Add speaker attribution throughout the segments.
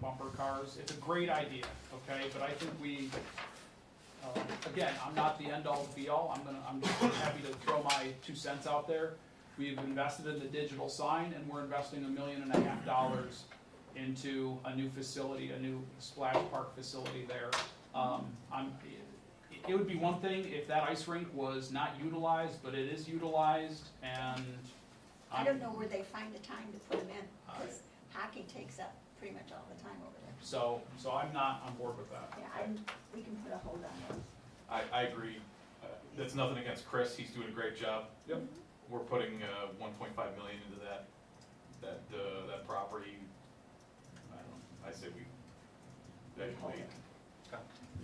Speaker 1: bumper cars. It's a great idea, okay, but I think we, um, again, I'm not the end-all be-all, I'm gonna, I'm just happy to throw my two cents out there. We've invested in the digital sign, and we're investing a million and a half dollars into a new facility, a new splash park facility there. Um, I'm, it- it would be one thing if that ice rink was not utilized, but it is utilized, and I'm-
Speaker 2: I don't know where they find the time to put them in, because hockey takes up pretty much all the time over there.
Speaker 1: So, so I'm not on board with that.
Speaker 2: Yeah, I'm, we can put a hold on it.
Speaker 3: I, I agree. Uh, That's nothing against Chris, he's doing a great job.
Speaker 1: Yep.
Speaker 3: We're putting uh, 1.5 million into that, that, uh, that property. I don't, I say we, that can wait.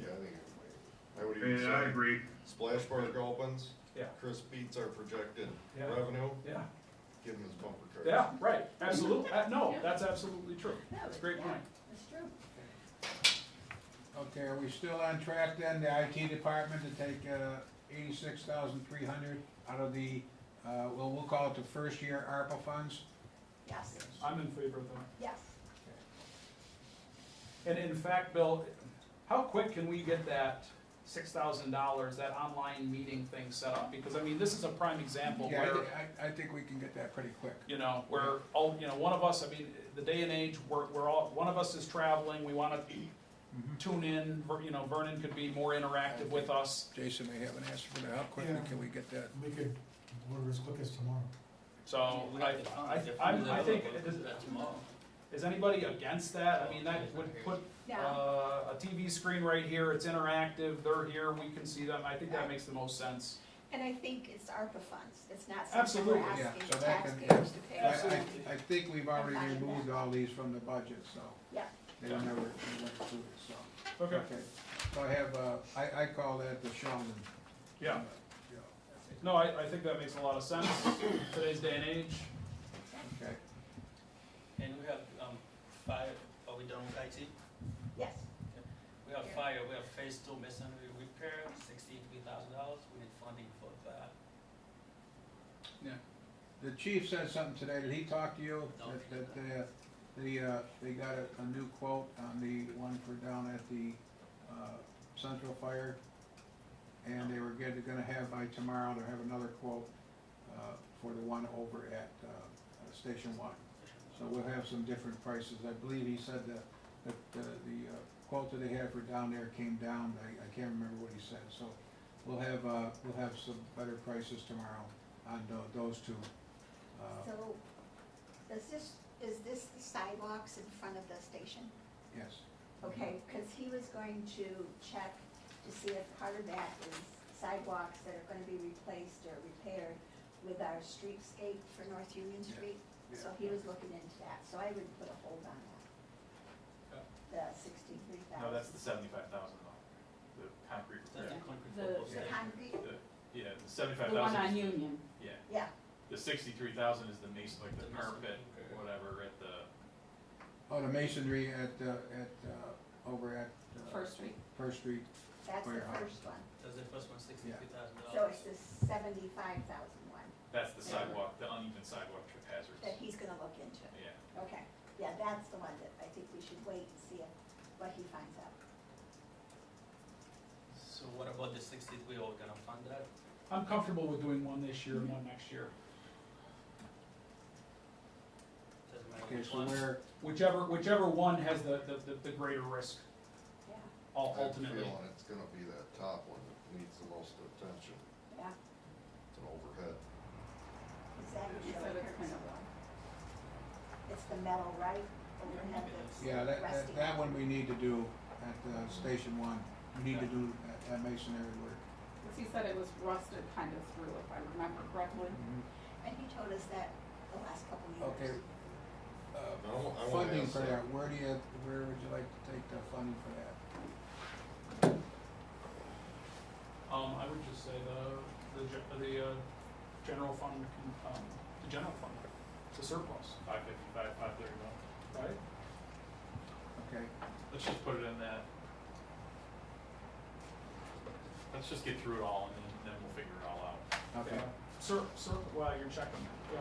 Speaker 4: Yeah, I think it would. I would even
Speaker 5: Yeah, I
Speaker 4: say,
Speaker 5: agree.
Speaker 4: splash park opens.
Speaker 1: Yeah.
Speaker 4: Chris beats our projected
Speaker 1: Yeah.
Speaker 4: revenue,
Speaker 1: Yeah,
Speaker 4: give him his bumper cars.
Speaker 1: yeah, right, absolutely, Uh, no, that's absolutely true.
Speaker 2: No,
Speaker 1: That's a great
Speaker 2: yeah,
Speaker 1: point.
Speaker 2: That's true.
Speaker 6: Okay, are we still on track then, the IT department to take uh, eighty-six thousand three hundred out of the, uh, well, we'll call it the first year ARPA funds?
Speaker 2: Yes,
Speaker 1: I'm in favor of that.
Speaker 2: yes.
Speaker 1: And in fact, Bill, how quick can we get that six thousand dollars, that online meeting thing set up? Because I mean, this is a prime example
Speaker 6: Yeah, I
Speaker 1: where,
Speaker 6: thi- I, I think we can get that pretty quick.
Speaker 1: you know, where all, you know, one of us, I mean, the day and age, we're, we're all, one of us is traveling, we wanna
Speaker 6: Mm-hmm.
Speaker 1: tune in, Ver- you know, Vernon could be more interactive with us,
Speaker 6: Jason, may have an answer for that, how quickly
Speaker 7: Yeah.
Speaker 6: can we get that?
Speaker 7: We could order as quick as tomorrow.
Speaker 1: so
Speaker 8: Oh,
Speaker 1: I, I, I'm- I think, Is anybody against that? I mean, that would put
Speaker 2: Now,
Speaker 1: uh, a TV screen right here, it's interactive, they're here, we can see them, I think that makes the most sense.
Speaker 2: and I think it's ARPA funds, it's not something we're
Speaker 1: Absolutely.
Speaker 6: Yeah,
Speaker 2: asking
Speaker 6: so that can-
Speaker 2: taxpayers to
Speaker 6: I,
Speaker 2: pay.
Speaker 6: I,
Speaker 2: for.
Speaker 6: I think we've already removed all these from the budget, so
Speaker 2: Yeah,
Speaker 6: they were never, they went through it, so. So I have, uh, I, I call that the Sheldon.
Speaker 1: Yeah,
Speaker 6: Yeah,
Speaker 1: no, I, I think that makes a lot of sense, today's day and age.
Speaker 6: Okay.
Speaker 8: And we have, um, fire, are we done with IT?
Speaker 2: yes,
Speaker 8: We have
Speaker 2: Yeah.
Speaker 8: fire, we have phase two masonry repair, sixty-three thousand dollars, we need funding for that.
Speaker 6: The chief said something today, did he talk to you?
Speaker 8: No.
Speaker 6: That, that, uh, the, uh, they got a, a new quote on the one for down at the, uh, Central Fire. And they were good, they're gonna have by tomorrow, they'll have another quote, uh, for the one over at, uh, uh, Station One. So we'll have some different prices, I believe he said that, that, the, the uh, quote that they had for down there came down, I, I can't remember what he said, so. We'll have, uh, we'll have some better prices tomorrow on tho- those two. Uh,
Speaker 2: so, does this, is this the sidewalks in front of the station?
Speaker 6: Yes,
Speaker 2: Okay, because he was going to check to see if part of that is sidewalks that are gonna be replaced or repaired with our streetscape for North Union
Speaker 6: Yeah,
Speaker 2: Street.
Speaker 6: yeah.
Speaker 2: So he was looking into that, so I would put a hold on that. The sixty-three thousand.
Speaker 3: No, that's the 75,000 though, the concrete
Speaker 8: That's
Speaker 3: repair.
Speaker 8: the concrete
Speaker 9: The-
Speaker 8: football
Speaker 2: The
Speaker 8: stadium.
Speaker 2: concrete,
Speaker 3: Yeah, the
Speaker 9: The one
Speaker 3: 75,000,
Speaker 9: on
Speaker 3: is-
Speaker 9: Union.
Speaker 3: yeah,
Speaker 2: yeah,
Speaker 3: the 63,000 is the mason, like the
Speaker 8: The
Speaker 3: parapet,
Speaker 8: mason- okay.
Speaker 3: whatever, at the,
Speaker 6: oh, the masonry at, uh, at, uh, over at. uh,
Speaker 9: First Street.
Speaker 6: First Street,
Speaker 2: that's the
Speaker 6: Warehouse.
Speaker 2: first one.
Speaker 8: That's the first one, sixty-three thousand
Speaker 2: So
Speaker 8: dollars.
Speaker 2: it's the seventy-five thousand one
Speaker 3: that's the sidewalk, the uneven sidewalk trip
Speaker 2: that
Speaker 3: hazards.
Speaker 2: he's gonna look into.
Speaker 3: Yeah.
Speaker 2: Okay, yeah, that's the one that I think we should wait and see if- what he finds out.
Speaker 8: So what about the sixty-three, are we gonna fund that?
Speaker 1: I'm comfortable with doing one this year and one next year,
Speaker 8: Doesn't matter
Speaker 6: okay,
Speaker 8: which
Speaker 6: so
Speaker 8: one.
Speaker 6: where,
Speaker 1: whichever, whichever one has the, the, the- the greater risk
Speaker 2: Yeah,
Speaker 1: ul-
Speaker 4: I have a
Speaker 1: ultimately.
Speaker 4: feeling it's gonna be that top one that needs the most attention,
Speaker 2: yeah,
Speaker 4: it's an overhead.
Speaker 2: exactly.
Speaker 9: He said it's kind of low.
Speaker 2: It's the metal, right? Overhead that's
Speaker 6: yeah, that, that,
Speaker 2: resting
Speaker 6: that
Speaker 2: on.
Speaker 6: one we need to do at, uh, Station One. We need to do that- that masonry work.
Speaker 9: 'Cause he said it was rusted kind of through, if I remember correctly.
Speaker 2: And he told us that the last couple of
Speaker 6: Okay.
Speaker 2: years.
Speaker 6: Uh,
Speaker 4: I wa- I wanna
Speaker 6: Funding
Speaker 4: ask
Speaker 6: for
Speaker 4: that.
Speaker 6: that, where do you, where would you like to take the funding for that?
Speaker 1: Um, I would just say the, the, ge- the, uh, general fund, can- um, the general fund, the surplus,
Speaker 3: 555, 531.
Speaker 1: right?
Speaker 6: Okay,
Speaker 3: Let's just put it in that. Let's just get through it all and then, then we'll figure it all out.
Speaker 6: okay.
Speaker 1: Sur, sur, well, you're checking, yeah.